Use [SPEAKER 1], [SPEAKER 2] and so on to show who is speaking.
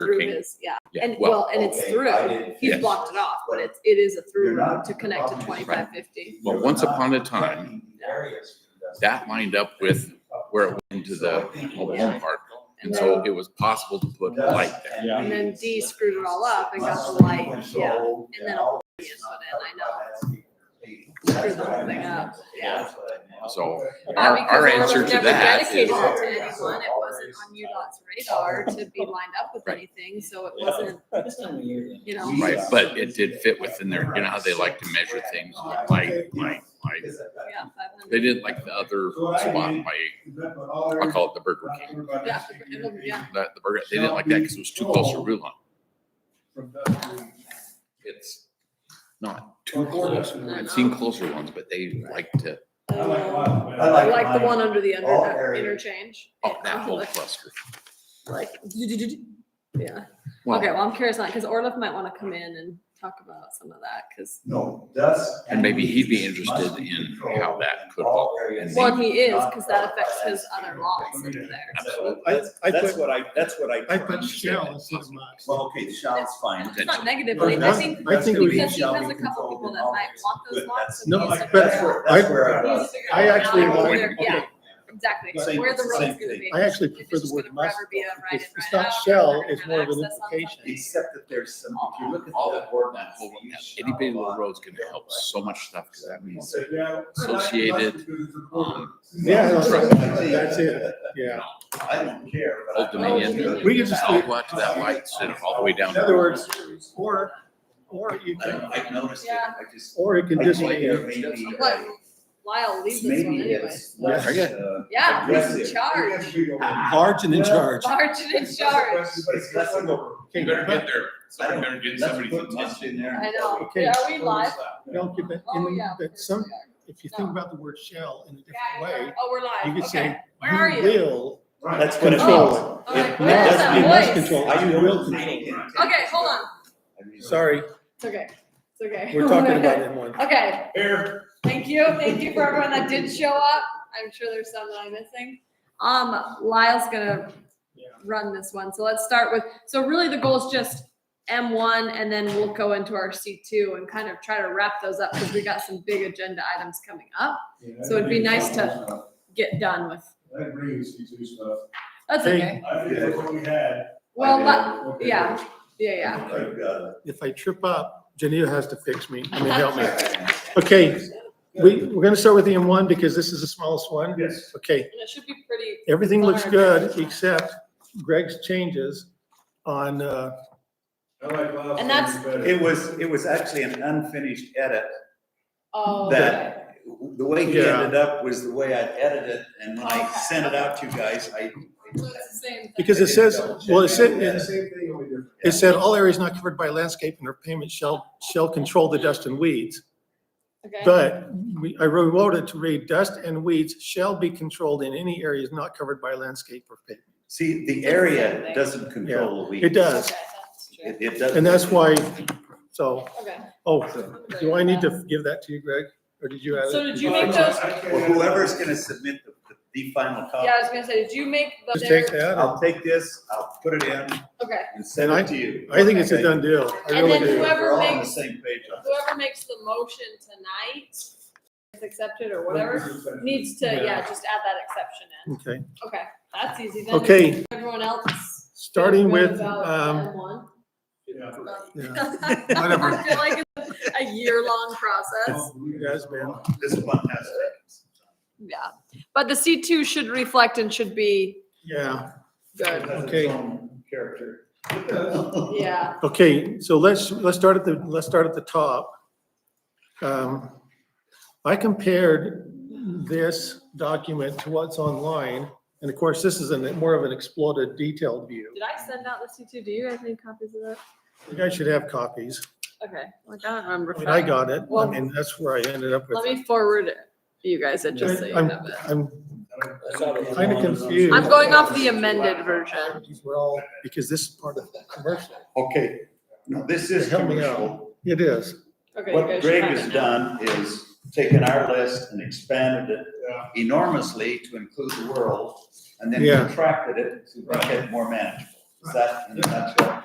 [SPEAKER 1] through
[SPEAKER 2] King.
[SPEAKER 1] his, yeah.
[SPEAKER 2] Yeah,
[SPEAKER 1] And,
[SPEAKER 2] well,
[SPEAKER 1] well, and it's
[SPEAKER 3] okay,
[SPEAKER 1] through,
[SPEAKER 3] I didn't
[SPEAKER 1] he's
[SPEAKER 3] finish
[SPEAKER 1] blocked it
[SPEAKER 3] this.
[SPEAKER 1] off, but it's, it is a through
[SPEAKER 3] You're not-
[SPEAKER 1] road to connect to
[SPEAKER 3] obviously,
[SPEAKER 1] twenty-five fifty.
[SPEAKER 2] Well,
[SPEAKER 3] You're
[SPEAKER 2] once
[SPEAKER 3] not
[SPEAKER 2] upon a time,
[SPEAKER 3] protecting the areas.
[SPEAKER 2] that lined up with where it went to the mobile home park. And so it was possible to put light there.
[SPEAKER 3] Yeah.
[SPEAKER 1] And then D screwed it all up and got the light, yeah, And then all the years went in, I
[SPEAKER 3] know.
[SPEAKER 1] screwed the whole thing up, yeah.
[SPEAKER 2] So
[SPEAKER 1] Yeah,
[SPEAKER 2] our,
[SPEAKER 1] because
[SPEAKER 2] our
[SPEAKER 1] it was
[SPEAKER 2] answer to
[SPEAKER 1] never
[SPEAKER 2] that
[SPEAKER 1] dedicated
[SPEAKER 2] is,
[SPEAKER 1] to
[SPEAKER 3] is-
[SPEAKER 1] anyone. It wasn't on UDOT's radar to be lined up with
[SPEAKER 2] Right.
[SPEAKER 1] anything, so it
[SPEAKER 4] Yeah.
[SPEAKER 1] wasn't,
[SPEAKER 4] This time of year.
[SPEAKER 1] you know.
[SPEAKER 2] right, but it did fit within there. You know how they like to measure things, light, light, light.
[SPEAKER 1] Yeah, five
[SPEAKER 2] They
[SPEAKER 1] hundred.
[SPEAKER 2] didn't like the other spot by, I'll call it the Burger King.
[SPEAKER 1] Yeah, the- yeah.
[SPEAKER 2] The, the burger, they didn't like that because it was too close to Rue Line. It's not too close. I've seen closer ones, but they like to,
[SPEAKER 1] Uh,
[SPEAKER 3] I
[SPEAKER 1] Like the one under the
[SPEAKER 3] All
[SPEAKER 1] under,
[SPEAKER 3] areas.
[SPEAKER 1] interchange.
[SPEAKER 2] oh, that
[SPEAKER 1] Yeah,
[SPEAKER 2] whole
[SPEAKER 1] like-
[SPEAKER 2] cluster.
[SPEAKER 1] Like, yeah. Okay,
[SPEAKER 2] Well,
[SPEAKER 1] well, I'm curious now, because Orlov might want to come in and talk about some of that, because,
[SPEAKER 3] No, dust.
[SPEAKER 2] and maybe he'd be
[SPEAKER 3] leaves
[SPEAKER 2] interested
[SPEAKER 3] must be
[SPEAKER 2] in
[SPEAKER 3] controlled
[SPEAKER 2] how that
[SPEAKER 3] in
[SPEAKER 2] could
[SPEAKER 3] all
[SPEAKER 2] all-
[SPEAKER 3] areas.
[SPEAKER 2] and
[SPEAKER 1] well, and he is, because that affects his other laws that are there.
[SPEAKER 2] absolutely.
[SPEAKER 5] I, I
[SPEAKER 4] That's
[SPEAKER 5] put,
[SPEAKER 4] what I, that's what I.
[SPEAKER 5] I put shall instead of must.
[SPEAKER 3] Well, okay, the shall's fine.
[SPEAKER 1] It's not negatively, I think,
[SPEAKER 5] I think we-
[SPEAKER 1] because he has a couple people that might want those lots.
[SPEAKER 5] No,
[SPEAKER 1] and he's
[SPEAKER 5] I-
[SPEAKER 1] like,
[SPEAKER 5] but-
[SPEAKER 3] That's where, that's where I
[SPEAKER 1] "Well,
[SPEAKER 3] was.
[SPEAKER 1] he's figuring
[SPEAKER 5] I
[SPEAKER 1] out
[SPEAKER 5] actually
[SPEAKER 1] how
[SPEAKER 5] like-
[SPEAKER 1] they're-" Yeah,
[SPEAKER 5] okay.
[SPEAKER 1] exactly,
[SPEAKER 3] Same-
[SPEAKER 1] where the road's
[SPEAKER 3] same
[SPEAKER 1] gonna be.
[SPEAKER 3] thing.
[SPEAKER 5] I actually
[SPEAKER 1] It's
[SPEAKER 5] prefer the
[SPEAKER 1] just
[SPEAKER 5] word
[SPEAKER 1] gonna
[SPEAKER 5] must.
[SPEAKER 1] forever be a right
[SPEAKER 5] It's,
[SPEAKER 1] and
[SPEAKER 5] it's
[SPEAKER 1] right
[SPEAKER 5] not
[SPEAKER 1] out, and we're
[SPEAKER 5] shall,
[SPEAKER 1] gonna
[SPEAKER 5] it's
[SPEAKER 1] have
[SPEAKER 5] more of an
[SPEAKER 1] access on
[SPEAKER 5] implication.
[SPEAKER 3] Except that there's some, if you look at
[SPEAKER 2] all
[SPEAKER 3] the
[SPEAKER 2] that, that
[SPEAKER 3] ordinance.
[SPEAKER 2] whole,
[SPEAKER 3] you
[SPEAKER 2] that
[SPEAKER 3] shall
[SPEAKER 2] itty bitty little
[SPEAKER 3] not-
[SPEAKER 2] road's gonna help so much stuff, because that means,
[SPEAKER 3] So, yeah.
[SPEAKER 2] Associated, um,
[SPEAKER 5] Yeah, I
[SPEAKER 2] Right.
[SPEAKER 5] know, that's it, yeah.
[SPEAKER 3] I don't care, but.
[SPEAKER 2] Old
[SPEAKER 3] I-
[SPEAKER 2] Dominion.
[SPEAKER 5] Oh, We could just
[SPEAKER 2] I'll
[SPEAKER 5] do-
[SPEAKER 2] go out to that light instead of all the way down.
[SPEAKER 5] In other words, or, or you
[SPEAKER 3] I
[SPEAKER 5] can,
[SPEAKER 3] don't, I noticed it,
[SPEAKER 1] Yeah.
[SPEAKER 3] I just.
[SPEAKER 5] or it can
[SPEAKER 3] I
[SPEAKER 5] just
[SPEAKER 3] think
[SPEAKER 5] be, a-
[SPEAKER 3] maybe-
[SPEAKER 1] But Lyle leaves this one
[SPEAKER 3] uh, Maybe
[SPEAKER 1] anyway.
[SPEAKER 3] it's less,
[SPEAKER 5] Yeah.
[SPEAKER 3] uh,
[SPEAKER 1] Yeah, he's in
[SPEAKER 3] aggressive.
[SPEAKER 1] charge,
[SPEAKER 5] Ah,
[SPEAKER 6] Large and in charge.
[SPEAKER 1] Sergeant in charge.
[SPEAKER 3] But it's less of a-
[SPEAKER 5] okay,
[SPEAKER 2] get there,
[SPEAKER 3] I don't- let's put must in there.
[SPEAKER 1] I know,
[SPEAKER 5] Okay.
[SPEAKER 1] yeah, are we live?
[SPEAKER 5] but don't give that,
[SPEAKER 1] Oh,
[SPEAKER 5] in,
[SPEAKER 1] yeah.
[SPEAKER 5] that some, if you think about the word shall in a different way,
[SPEAKER 1] Oh, we're
[SPEAKER 5] you
[SPEAKER 1] live,
[SPEAKER 5] could
[SPEAKER 1] okay.
[SPEAKER 5] say,
[SPEAKER 1] Where are
[SPEAKER 5] you
[SPEAKER 1] you?
[SPEAKER 5] will
[SPEAKER 4] That's what it means.
[SPEAKER 5] control
[SPEAKER 1] I'm
[SPEAKER 5] it.
[SPEAKER 1] like,
[SPEAKER 5] It
[SPEAKER 1] where is
[SPEAKER 5] must
[SPEAKER 1] that
[SPEAKER 5] be must
[SPEAKER 1] voice?
[SPEAKER 5] control, it.
[SPEAKER 3] I
[SPEAKER 5] you will control.
[SPEAKER 1] Okay, hold on,
[SPEAKER 3] on.
[SPEAKER 5] Sorry,
[SPEAKER 1] it's okay, it's okay.
[SPEAKER 5] we're talking about it more.
[SPEAKER 1] Okay. Thank you, thank you for everyone that did show up, I'm sure there's some that I'm missing. Um, Lyle's gonna
[SPEAKER 5] Yeah.
[SPEAKER 1] run this one, so let's start with, so really the goal is just M one, and then we'll go into our C two and kind of try to wrap those up, because we got some big agenda items coming up. So it'd be nice to- Get done with,
[SPEAKER 7] I agree with C two stuff.
[SPEAKER 1] that's
[SPEAKER 5] Hey.
[SPEAKER 1] okay,
[SPEAKER 7] I think that's what we had.
[SPEAKER 1] well,
[SPEAKER 3] did.
[SPEAKER 1] let- yeah, yeah, yeah.
[SPEAKER 3] I've got
[SPEAKER 5] If I trip up, Janita has to fix me, I mean, help me.
[SPEAKER 3] it.
[SPEAKER 5] Okay, we, we're gonna start with the M one because this is the smallest one.
[SPEAKER 7] Yes.
[SPEAKER 5] Okay,
[SPEAKER 1] And it should be pretty,
[SPEAKER 5] everything looks good except Greg's changes on, uh,
[SPEAKER 7] I like Bob's
[SPEAKER 1] And that's-
[SPEAKER 7] thing better.
[SPEAKER 4] It was, it was actually an unfinished edit.
[SPEAKER 1] oh.
[SPEAKER 4] That-
[SPEAKER 1] okay.
[SPEAKER 3] The way he
[SPEAKER 5] Yeah.
[SPEAKER 3] ended up was the way I edited it, and when I
[SPEAKER 1] Okay.
[SPEAKER 3] sent it out to you guys, I.
[SPEAKER 1] So it's the same thing.
[SPEAKER 5] because it says, well, it said,
[SPEAKER 7] Yeah,
[SPEAKER 5] it
[SPEAKER 7] Same thing, only different.
[SPEAKER 5] It said, all areas not covered by landscape and or pavement shall, shall control the dust and weeds.
[SPEAKER 1] Okay.
[SPEAKER 5] But we, I rewrote it to read dust and weeds shall be controlled in any areas not covered by landscape or pavement.
[SPEAKER 3] See, the
[SPEAKER 1] Same
[SPEAKER 3] area
[SPEAKER 1] thing.
[SPEAKER 3] doesn't control the weed.
[SPEAKER 5] It does,
[SPEAKER 1] Okay, that's
[SPEAKER 3] It,
[SPEAKER 1] true.
[SPEAKER 3] it does.
[SPEAKER 5] and that's why, so,
[SPEAKER 1] Okay.
[SPEAKER 5] oh, do I need to give that to you, Greg? Or did you add
[SPEAKER 1] So
[SPEAKER 5] it?
[SPEAKER 1] did you make those,
[SPEAKER 7] I can't-
[SPEAKER 3] Well, whoever's gonna submit the, the final copy,
[SPEAKER 1] yeah, I was gonna say, did you make the?
[SPEAKER 5] Just take that.
[SPEAKER 3] I'll take this, I'll put it in
[SPEAKER 1] Okay,
[SPEAKER 3] and send
[SPEAKER 5] And
[SPEAKER 3] it to you.
[SPEAKER 5] I think it's a done deal. I
[SPEAKER 1] And
[SPEAKER 5] really
[SPEAKER 1] then
[SPEAKER 5] do.
[SPEAKER 1] whoever-
[SPEAKER 3] We're all on the
[SPEAKER 1] makes-
[SPEAKER 3] same page on this.
[SPEAKER 1] whoever makes the motion tonight, is accepted or whatever, needs to,
[SPEAKER 5] Yeah.
[SPEAKER 1] yeah, just add that exception in.
[SPEAKER 5] Okay,
[SPEAKER 1] Okay, that's easy then.
[SPEAKER 5] okay,
[SPEAKER 1] Everyone else.
[SPEAKER 5] starting
[SPEAKER 1] feel good
[SPEAKER 5] with,
[SPEAKER 1] about
[SPEAKER 5] um,
[SPEAKER 1] that one?
[SPEAKER 7] Yeah.
[SPEAKER 5] yeah,
[SPEAKER 1] Whatever. I feel like it's a year-long process.
[SPEAKER 5] you guys, man.
[SPEAKER 3] This one has to.
[SPEAKER 1] Yeah, but the C two should reflect and should be
[SPEAKER 5] yeah,
[SPEAKER 1] good.
[SPEAKER 5] okay.
[SPEAKER 3] Character.
[SPEAKER 5] Oh.
[SPEAKER 1] Yeah,
[SPEAKER 5] Okay, so let's, let's start at the, let's start at the top. Um, I compared this document to what's online, and of course, this is a more of an exploded detailed view.
[SPEAKER 1] did I send out the C two? Do you guys need copies of that?
[SPEAKER 5] You guys should have copies.
[SPEAKER 1] Okay, like I don't remember.
[SPEAKER 5] I mean, I got it. I
[SPEAKER 1] Well-
[SPEAKER 5] mean, that's where I ended up
[SPEAKER 1] Let
[SPEAKER 5] with. it.
[SPEAKER 1] me forward it to you guys and just so you
[SPEAKER 5] I'm-
[SPEAKER 1] have it.
[SPEAKER 5] I'm,
[SPEAKER 7] Kinda confused.
[SPEAKER 1] I'm going off the amended version.
[SPEAKER 5] these were all, because this is part of the commercial.
[SPEAKER 3] Okay, now this is
[SPEAKER 5] Help me out.
[SPEAKER 3] commercial.
[SPEAKER 5] It is.
[SPEAKER 1] Okay, you
[SPEAKER 3] What
[SPEAKER 1] guys should
[SPEAKER 3] Greg
[SPEAKER 1] have
[SPEAKER 3] has
[SPEAKER 1] it now.
[SPEAKER 3] done is taken our list and expanded it
[SPEAKER 7] Yeah.
[SPEAKER 3] enormously to include the world and then
[SPEAKER 5] Yeah.
[SPEAKER 3] contracted it to make it more manageable. Is that in a nutshell?